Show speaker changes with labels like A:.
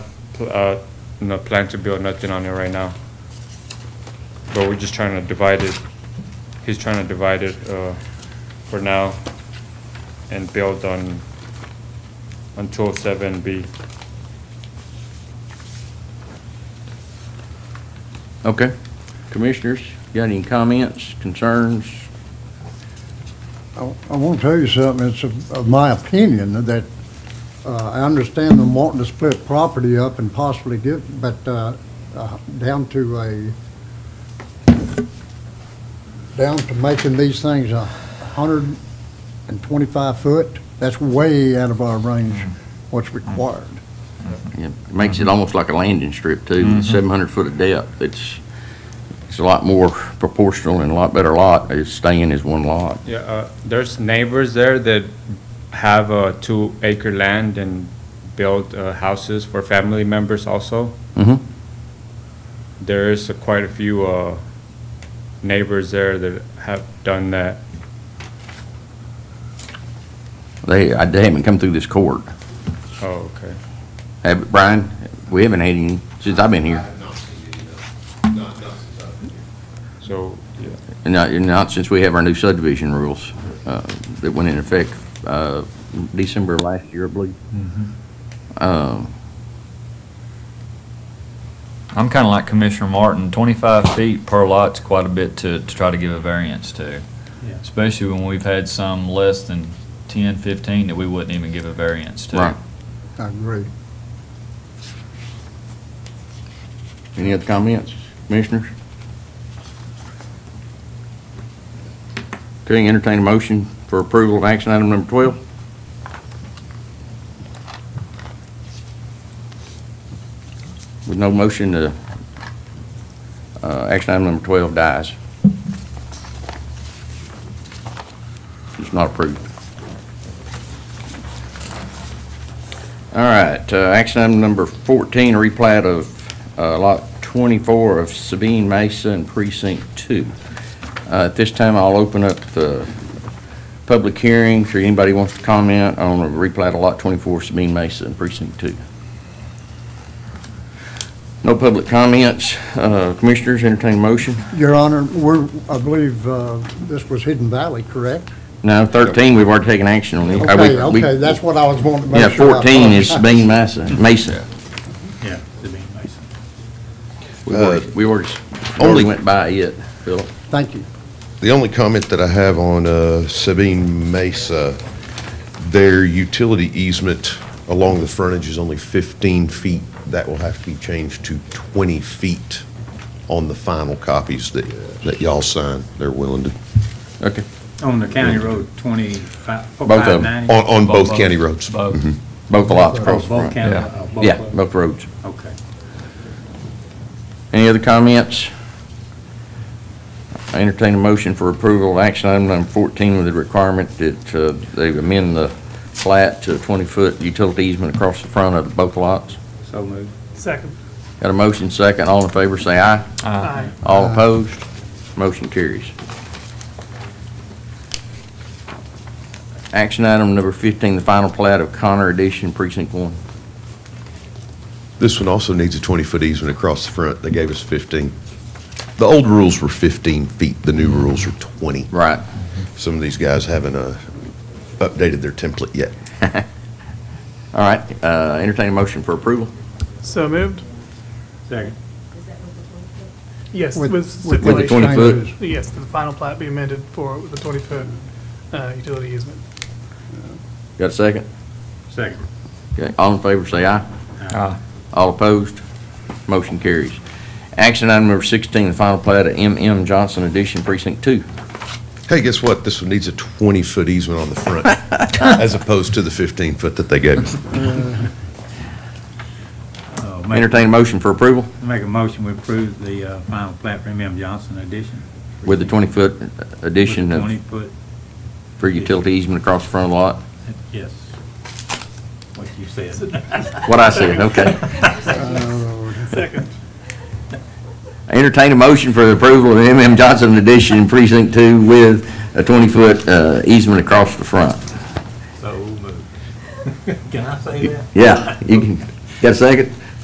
A: uh, no plan to build nothing on it right now. But we're just trying to divide it, he's trying to divide it, uh, for now and build on, on two oh seven B.
B: Okay. Commissioners, got any comments, concerns?
C: I I want to tell you something, it's of of my opinion that, uh, I understand them wanting to split property up and possibly get, but uh, uh, down to a, down to making these things a hundred and twenty-five foot, that's way out of our range, what's required.
B: Yeah, it Makes it almost like a landing strip too, seven hundred foot of depth. It's, it's a lot more proportional and a lot better lot. It's staying as one lot.
A: Yeah, uh, there's neighbors there that have a two acre land and build uh, houses for family members also.
B: Mm-hmm.
A: There is quite a few uh, neighbors there that have done that.
B: They, I- they haven't come through this court.
A: Oh, okay.
B: Have, Brian, we haven't had any since I've been here.
A: So, yeah.
B: And not, and not since we have our new subdivision rules, uh, that went in effect, uh, December of last year, I believe. Um,
D: I'm kind of like Commissioner Martin, 25 feet per lot's quite a bit to, to try to give a variance to.
A: Yeah.
D: Especially when we've had some less than 10, 15 that we wouldn't even give a variance to.
B: right.
C: I agree.
B: Any other comments, commissioners? Okay, entertain a motion for approval of action item number 12. With no motion, uh, uh, action item number 12 dies. It's not approved. All right, uh, action item number 14, replat of uh, Lot 24 of Sabine Mesa and Precinct 2. Uh, At this time, I'll open up the public hearing for anybody wants to comment on a replat of Lot 24 Sabine Mesa and Precinct 2. No public comments. Uh, Commissioners, entertain a motion.
C: Your Honor, we're, I believe, uh, this was Hidden Valley, correct?
B: No, 13, we've already taken action on it. Uh, we-
C: Okay,
B: we-
C: okay, that's what I was wanting to
B: Yeah,
C: make sure. I
B: 14 is
C: thought.
B: Sabine Mesa, Mesa.
E: Yeah, the main license.
B: We already,
E: Uh,
B: we already
F: only-
B: already went by it, Philip.
C: Thank you.
F: The only comment that I have on uh, Sabine Mesa, their utility easement along the frontage is only 15 feet. That will have to be changed to 20 feet on the final copies that, that y'all sign. They're willing to,
B: Okay.
E: On the county road, twenty-five,
B: of them.
E: five ninety?
F: on, on both county roads.
D: Both.
B: Both the lots across the front.
E: Both county,
D: yeah.
E: uh, both
B: Yeah,
E: of them?
B: both roads.
E: Okay.
B: Any other comments? I entertain a motion for approval of action item number 14 with the requirement that uh, they amend the plat to a 20-foot utility easement across the front of both lots.
E: So moved.
G: Second.
B: Got a motion second. All in favor, say aye.
G: Aye.
B: All opposed? Motion carries. Action item number 15, the final plat of Connor Edition Precinct 1.
F: This one also needs a 20-foot easement across the front. They gave us 15. The old rules were 15 feet, the new rules are 20.
B: Right.
F: Some of these guys haven't uh, updated their template yet.
B: All right, uh, entertain a motion for approval.
G: So moved?
E: Second.
G: Yes,
C: With-
G: with
C: with the
G: stipulation.
B: 20 foot.
G: Yes, the final plat be amended for the 20-foot uh, utility easement.
B: Got a second?
E: Second.
B: Okay, all in favor, say aye.
D: Aye.
B: All opposed? Motion carries. Action item number 16, the final plat of M.M. Johnson Edition Precinct 2.
F: Hey, guess what? This one needs a 20-foot easement on the front, as opposed to the 15-foot that they gave us.
E: Uh, make-
B: Entertain a motion for approval
E: Make a motion, we approve the uh, final plat premium Johnson addition.
B: with the 20-foot addition of-
E: Twenty-foot,
B: for utility easement across the front of the lot.
E: yes. What you said.
B: What I said, okay.
G: Second.
B: Entertain a motion for the approval of M.M. Johnson Edition Precinct 2 with a 20-foot uh, easement across the front.
E: So moved. Can I say that?
B: Yeah, you can, got a second?